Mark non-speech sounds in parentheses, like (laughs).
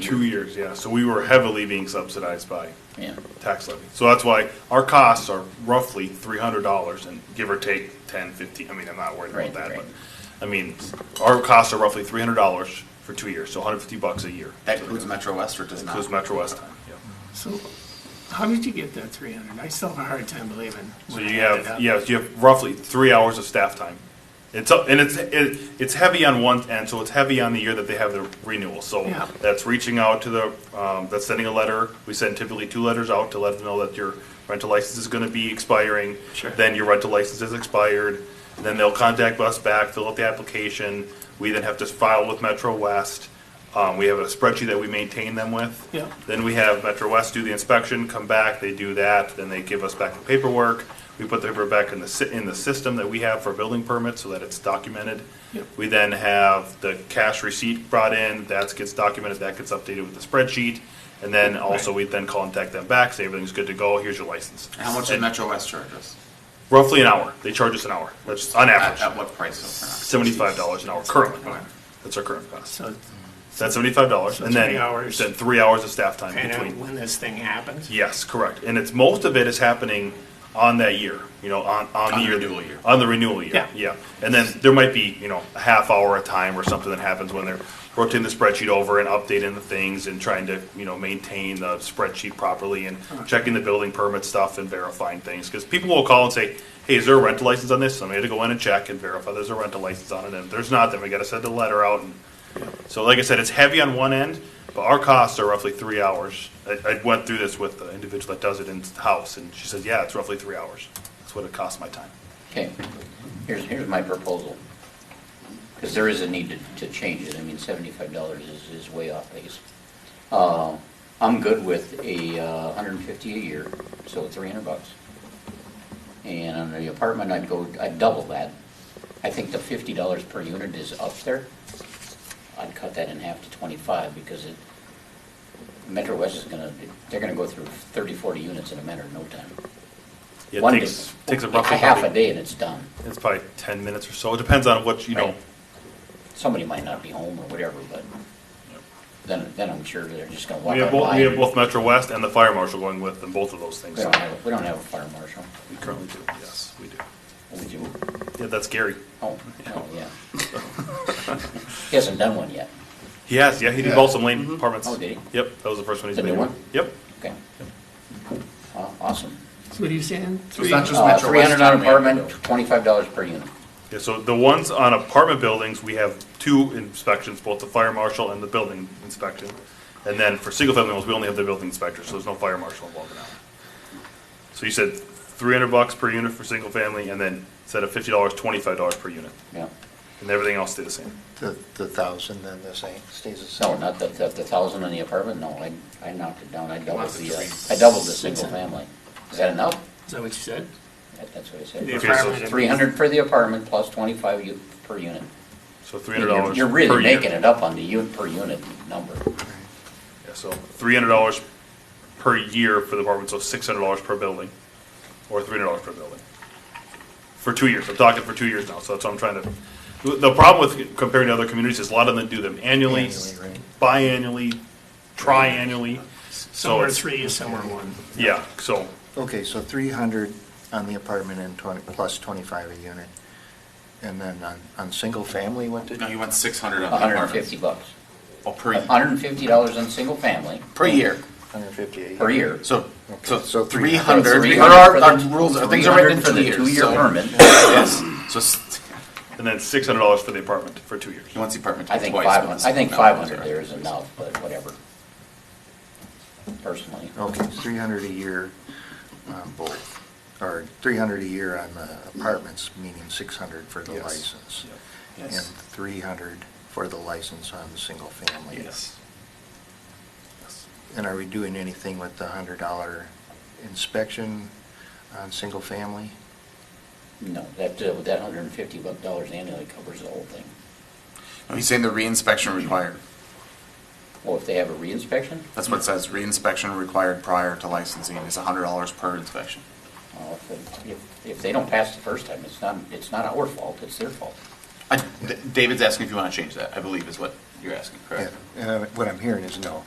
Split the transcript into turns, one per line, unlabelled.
Two years, yeah. So we were heavily being subsidized by
Yeah.
tax levy. So that's why our costs are roughly three hundred dollars and give or take ten, fifteen, I mean, I'm not worried
Right,
about that,
right.
but, I mean, our costs are roughly three hundred dollars for two years, so hundred fifty bucks a year.
That includes Metro West or does not?
Includes Metro West time, yeah.
So how did you get that three hundred? I still have a hard time believing.
So
when I
you
add it
have,
up.
yeah, you have roughly three hours of staff time. It's, up- and it's, it, it's heavy on one end, so it's heavy on the year that they have the renewal. So
Yeah.
that's reaching out to the, um, that's sending a letter. We send typically two letters out to let them know that your rental license is gonna be expiring.
Sure.
Then your rental license is expired. Then they'll contact us back, fill out the application. We then have to file with Metro West. Um, we have a spreadsheet that we maintain them with.
Yeah.
Then we have Metro West do the inspection, come back, they do that, then they give us back the paperwork. We put the paperwork back in the, sy- in the system that we have for building permits so that it's documented.
Yep.
We then have the cash receipt brought in, that gets documented, that gets updated with the spreadsheet. And then also, we then contact them back, say everything's good to go, here's your license.
How much did
And
Metro West charge us?
Roughly an hour, they charge us an hour, that's on
At,
average,
at what price? so per hour?
seventy-five dollars an hour currently.
Okay.
That's our current cost.
So,
That's seventy-five dollars,
So
and then,
three hours.
then three hours of staff time
kind
between.
of when this thing happens?
Yes, correct. And it's, most of it is happening on that year, you know, on, on the
On the
year.
renewal year.
On the renewal year,
Yeah.
yeah. And then there might be, you know, a half hour a time or something that happens when they're rotating the spreadsheet over and updating the things and trying to, you know, maintain the spreadsheet properly and checking the building permit stuff and verifying things. Because people will call and say, hey, is there a rental license on this? So I had to go in and check and verify there's a rental license on it. And if there's not, then we gotta send a letter out and so like I said, it's heavy on one end, but our costs are roughly three hours. I, I went through this with the individual that does it in the house, and she says, yeah, it's roughly three hours. That's what it costs my time.
Okay, here's, here's my proposal. Because there is a need to, to change it. I mean, seventy-five dollars is, is way off base. Uh, I'm good with a uh, hundred and fifty a year, so three hundred bucks. And on the apartment, I'd go, I'd double that. I think the fifty dollars per unit is up there. I'd cut that in half to twenty-five because it, Metro West is gonna, they're gonna go through 30, 40 units in a matter of no time.
It
One
takes,
day.
takes a
Like
roughly.
Half a
probably-
day and it's done.
It's probably ten minutes or so. It depends on what, you know,
Right. Somebody might not be home or whatever, but then, then I'm sure they're just gonna walk
we have
on
both,
by.
we have both Metro West and the fire marshal going with them, both of those things.
We don't have, we don't have a fire marshal.
We currently do, yes, we do.
We do.
Yeah, that's Gary.
Oh, oh, yeah.
(laughs)
He hasn't done one yet.
He has, yeah, he did
Yeah.
Balsam Lane apartments.
Oh, did he?
Yep, that was the first one he's
The new
made.
one?
Yep.
Okay. Aw- Awesome.
So what are you saying?
So it's not just
Uh,
Metro
three
West.
hundred
charging
on
me, I can
apartment, twenty-five dollars per unit.
Yeah, so the ones on apartment buildings, we have two inspections, both the fire marshal and the building inspection. And then for single-family homes, we only have the building inspector, so there's no fire marshal involved in that. one. So you said three hundred bucks per unit for single-family, and then instead of fifty dollars, twenty-five dollars per unit,
Yeah.
and everything else stay the same.
The, the thousand then the same, stays the same.
No, not the, the, the thousand on the apartment, no, I, I knocked it down. I doubled
wants it
the,
to
uh,
be
I doubled the single family. Is that enough?
Is that what you said?
That- That's what I said.
The
Okay, so
apartment and-
Three hundred for the apartment plus twenty-five u- per unit.
So three hundred
You're
dollars.
you're really making it up on the unit, per unit number.
Yeah, so three hundred dollars per year for the apartment, so six hundred dollars per building, or three hundred dollars per building. For two years, I'm talking for two years now, so that's what I'm trying to, the problem with comparing to other communities is a lot of them do them annually,
Annually, right.
biannually, triannually, so
Somewhere
it's,
three is somewhere one.
yeah, so,
Okay, so three hundred on the apartment and twenty, plus twenty-five a unit. And then on, on single family, what
do.
did?
No, you went six hundred on the
hundred and
apartment.
fifty bucks.
Oh, per, year.
hundred and fifty dollars on single family.
per year,
Hundred fifty a year.
Per year.
so,
Okay, so
so
three
three
hundred.
hundred,
Three
there
hundred
are,
for
our
the-
rules, are- things are written in two years.
For the two-year
so-
permit,
(laughs) Yes, so s-
and then six hundred dollars for the apartment for two years.
he wants the apartment
I
twice.
think
but
five hundred,
it's-
I think
no,
five
it's
hundred
all
there
right.
is enough, but whatever. Personally.
Okay, three hundred a year on both, or three hundred a year on the apartments, meaning six hundred for the
Yes.
license. And
Yes.
three hundred for the license on the single family.
Yes. Yes.
And are we doing anything with the hundred dollar inspection on single family?
No, that, uh, that hundred and fifty dollars annually covers the whole thing.
No, He's saying the reinspection required.
Well, if they have a reinspection,
That's what it says, reinspection required prior to licensing is hundred dollars per inspection.
uh, if, they- if, if they don't pass the first time, it's not, it's not our fault, it's their fault.
I- D- David's asking if you want to change that, I believe is what you're asking, correct?
Yeah, uh, What I'm hearing is no.